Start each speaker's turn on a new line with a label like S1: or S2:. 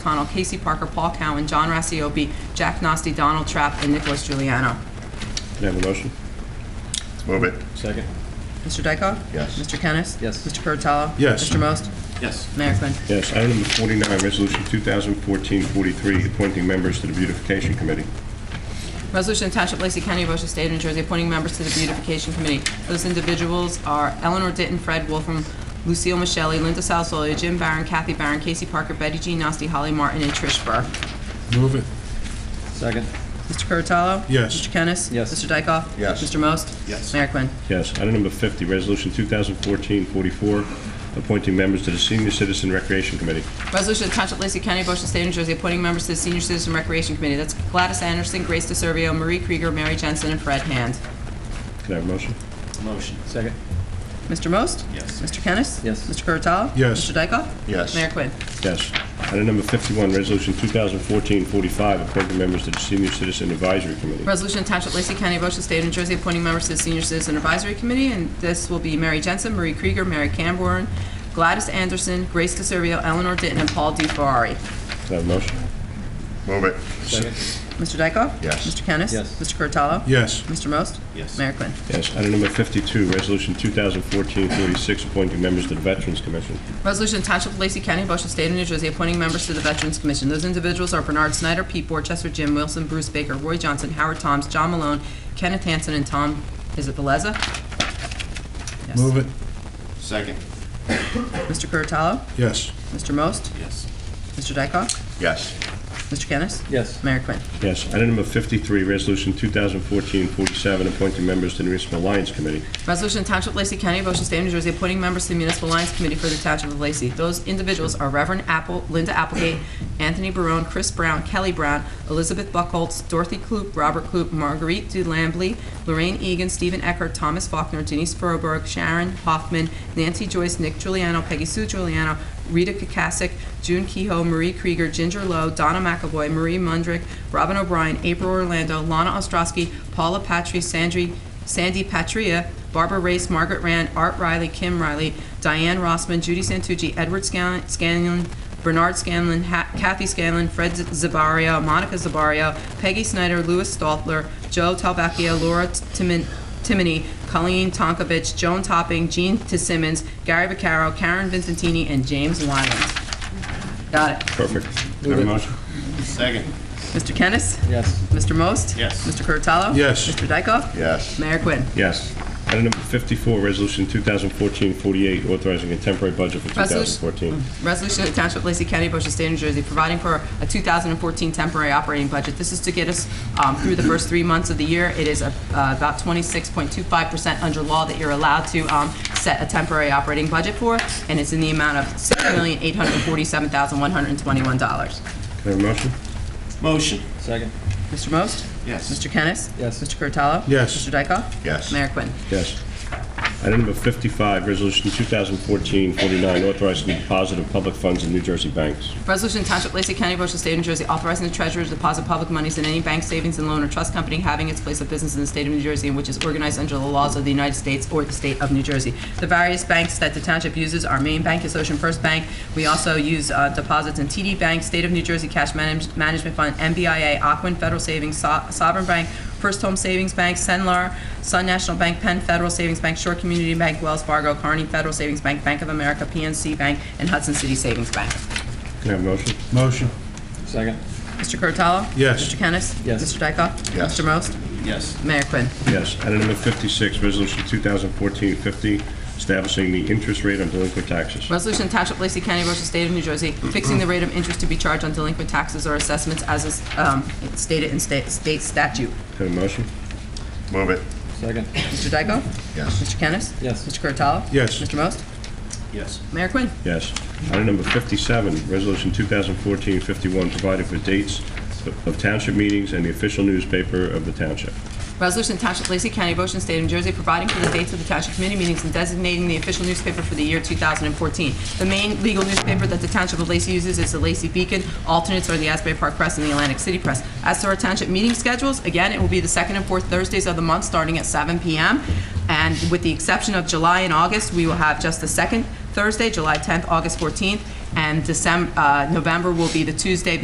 S1: Connell, Casey Parker, Paul Cowan, John Rassiopi, Jack Nasty, Donald Trapp, and Nicholas Giuliano.
S2: Can I have a motion?
S3: Move it.
S4: Second.
S1: Mr. Dykoff?
S3: Yes.
S1: Mr. Kennis?
S4: Yes.
S1: Mr. Curatolo?
S2: Yes.
S1: Mr. Most?
S4: Yes.
S1: Mayor Quinn.
S2: Yes. Item number 49, Resolution 2014-43, appointing members to the Beautification Committee.
S1: Resolution to Township of Lacey County, Ocean State, New Jersey, appointing members to the Beautification Committee. Those individuals are Eleanor Ditton, Fred Wolfram, Lucille Michele, Linda Salzolia, Jim Barron, Kathy Barron, Casey Parker, Betty G. Nasty, Holly Martin, and Trish Burr.
S5: Move it.
S4: Second.
S1: Mr. Curatolo?
S5: Yes.
S1: Mr. Kennis?
S4: Yes.
S1: Mr. Dykoff?
S3: Yes.
S1: Mr. Most?
S4: Yes.
S1: Mayor Quinn.
S2: Yes. Item number 50, Resolution 2014-44, appointing members to the Senior Citizen Recreation Committee.
S1: Resolution of Township of Lacey County, Ocean State, New Jersey, appointing members to the Senior Citizen Recreation Committee. That's Gladys Anderson, Grace DeServio, Marie Krieger, Mary Jensen, and Fred Hand.
S2: Can I have a motion?
S4: Motion. Second.
S1: Mr. Most?
S4: Yes.
S1: Mr. Kennis?
S4: Yes.
S1: Mr. Curatolo?
S5: Yes.
S1: Mr. Dykoff?
S3: Yes.
S1: Mayor Quinn.
S2: Yes. Item number 51, Resolution 2014-45, appointing members to the Senior Citizen Advisory Committee.
S1: Resolution of Township of Lacey County, Ocean State, New Jersey, appointing members to the Senior Citizen Advisory Committee, and this will be Mary Jensen, Marie Krieger, Mary Camborne, Gladys Anderson, Grace DeServio, Eleanor Ditton, and Paul DeFerrari.
S2: Can I have a motion?
S3: Move it.
S4: Second.
S1: Mr. Dykoff?
S3: Yes.
S1: Mr. Kennis?
S4: Yes.
S1: Mr. Curatolo?
S5: Yes.
S1: Mr. Most?
S4: Yes.
S1: Mayor Quinn.
S2: Yes. Item number 52, Resolution 2014-46, appointing members to the Veterans Commission.
S1: Resolution Township of Lacey County, Ocean State of New Jersey, appointing members to the Veterans Commission. Those individuals are Bernard Snyder, Pete Borchester, Jim Wilson, Bruce Baker, Roy Johnson, Howard Toms, John Malone, Kenneth Hansen, and Tom, is it Beleza? Yes.
S5: Move it.
S4: Second.
S1: Mr. Curatolo?
S5: Yes.
S1: Mr. Most?
S4: Yes.
S1: Mr. Dykoff?
S3: Yes.
S1: Mr. Kennis?
S4: Yes.
S1: Mayor Quinn.
S2: Yes. Item number 53, Resolution 2014-47, appointing members to the Municipal Alliance Committee.
S1: Resolution Township of Lacey County, Ocean State, New Jersey, appointing members to the Municipal Alliance Committee for the Township of Lacey. Those individuals are Reverend Apple, Linda Applegate, Anthony Barone, Chris Brown, Kelly Brown, Elizabeth Buckholz, Dorothy Kloop, Robert Kloop, Marguerite DeLambly, Lorraine Egan, Stephen Eckert, Thomas Faulkner, Denise Furlberg, Sharon Hoffman, Nancy Joyce, Nick Giuliano, Peggy Sue Giuliano, Rita Kukasik, June Kehoe, Marie Krieger, Ginger Lowe, Donna McAvoy, Marie Mundrick, Robin O'Brien, April Orlando, Lana Ostrowski, Paula Patry, Sandri, Sandy Patria, Barbara Race, Margaret Rand, Art Riley, Kim Riley, Diane Rossman, Judy Santucci, Edward Scan- Scanlon, Bernard Scanlon, Ha- Kathy Scanlon, Fred Z- Zabario, Monica Zabario, Peggy Snyder, Louis Stoltler, Joe Talbacchio, Laura Timin- Timoney, Colleen Tonkovich, Joan Topping, Jean Tissimmons, Gary Vaccaro, Karen Vincentini, and James Wyland. Got it.
S2: Perfect. Can I have a motion?
S4: Second.
S1: Mr. Kennis?
S4: Yes.
S1: Mr. Most?
S4: Yes.
S1: Mr. Curatolo?
S5: Yes.
S1: Mr. Dykoff?
S3: Yes.
S1: Mayor Quinn.
S2: Yes. Item number 54, Resolution 2014-48, authorizing a temporary budget for
S1: Resolution-
S2: 2014.
S1: Resolution of the Township of Lacey County, Ocean State, New Jersey, providing for a 2014 temporary operating budget. This is to get us um, through the first three months of the year. It is uh, about 26.25% under law that you're allowed to um, set a temporary operating budget for, and it's in the amount of $6,847,121.
S2: Can I have a motion?
S4: Motion. Second.
S1: Mr. Most?
S4: Yes.
S1: Mr. Kennis?
S4: Yes.
S1: Mr. Curatolo?
S5: Yes.
S1: Mr. Dykoff?
S3: Yes.
S1: Mayor Quinn.
S2: Yes. Item number 55, Resolution 2014-49, authorizing the deposit of public funds in New Jersey banks.
S1: Resolution Township Lacey County, Ocean State, New Jersey, authorizing the treasurer to deposit public monies in any bank, savings, and loan or trust company having its place of business in the state of New Jersey and which is organized under the laws of the United States or the state of New Jersey. The various banks that the township uses, our main bank is Ocean First Bank. We also use uh, deposits in TD Bank, State of New Jersey Cash Manage- Management Fund, MBIA, Aquin Federal Savings, So- Sovereign Bank, First Home Savings Bank, Senlar, Sun National Bank, Penn Federal Savings Bank, Shore Community Bank, Wells Fargo, Kearney Federal Savings Bank, Bank of America, PNC Bank, and Hudson City Savings Bank.
S2: Can I have a motion?
S5: Motion.
S4: Second.
S1: Mr. Curatolo?
S5: Yes.
S1: Mr. Kennis?
S4: Yes.
S1: Mr. Dykoff?
S3: Yes.
S1: Mr. Most?
S4: Yes.
S1: Mayor Quinn.
S2: Yes. Item number 56, Resolution 2014-50, establishing the interest rate on delinquent taxes.
S1: Resolution Township of Lacey County, Ocean State of New Jersey, fixing the rate of interest to be charged on delinquent taxes or assessments as is um, stated in sta- state statute.
S2: Can I have a motion?
S3: Move it.
S4: Second.
S1: Mr. Dykoff?
S3: Yes.
S1: Mr. Kennis?
S4: Yes.
S1: Mr. Curatolo?
S5: Yes.
S1: Mr. Most?
S4: Yes.
S1: Mayor Quinn.
S2: Yes. Item number 57, Resolution 2014-51, providing for dates of township meetings and the official newspaper of the township.
S1: Resolution Township of Lacey County, Ocean State, New Jersey, providing for the dates of the Township Committee meetings and designating the official newspaper for the year 2014. The main legal newspaper that the Township of Lacey uses is the Lacey Beacon. Alternates are the Asbury Park Press and the Atlantic City Press. As to our township meeting schedules, again, it will be the second and fourth Thursdays of the month, starting at 7 p.m. And with the exception of July and August, we will have just the second Thursday, July 10th, August 14th, and December, November will be the Tuesday